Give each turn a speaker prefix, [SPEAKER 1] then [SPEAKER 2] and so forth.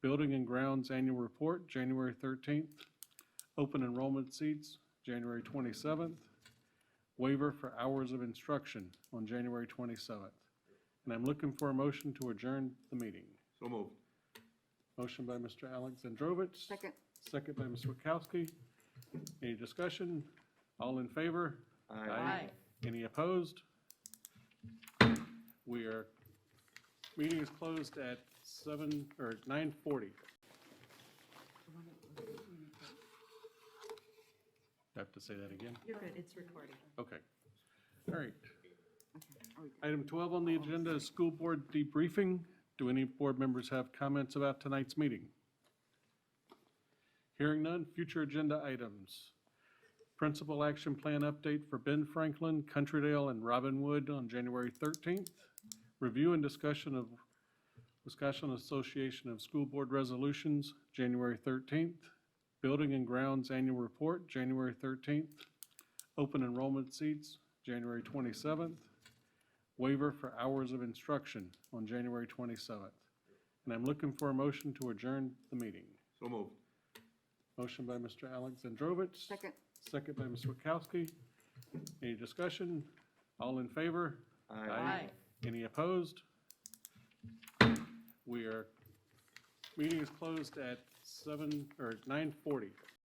[SPEAKER 1] Building and Grounds Annual Report, January 13th. Open enrollment seats, January 27th. Waiver for hours of instruction on January 27th. And I'm looking for a motion to adjourn the meeting.
[SPEAKER 2] So moved.
[SPEAKER 1] Motion by Mr. Alexandrovich.
[SPEAKER 3] Second.
[SPEAKER 1] Second by Ms. Wackowski. Any discussion? All in favor?
[SPEAKER 3] Aye.
[SPEAKER 1] Any opposed? We are, meeting is closed at seven, or nine forty. Have to say that again?
[SPEAKER 3] You're good, it's recording.
[SPEAKER 1] Okay. All right.
[SPEAKER 3] Are we done?
[SPEAKER 1] Item twelve on the agenda is school board debriefing. Do any board members have comments about tonight's meeting? Hearing none, future agenda items. Principal action plan update for Ben Franklin, Countrydale, and Robinwood on January thirteenth. Review and discussion of Wisconsin Association of School Board Resolutions, January thirteenth. Building and Grounds Annual Report, January thirteenth. Open enrollment seats, January twenty-seventh waiver for hours of instruction on January 27th. And I'm looking for a motion to adjourn the meeting.
[SPEAKER 2] So moved.
[SPEAKER 1] Motion by Mr. Alexandrovich.
[SPEAKER 3] Second.
[SPEAKER 1] Second by Ms. Wackowski. Any discussion? All in favor? Any opposed? We are, meeting is closed at 7, or 9:40.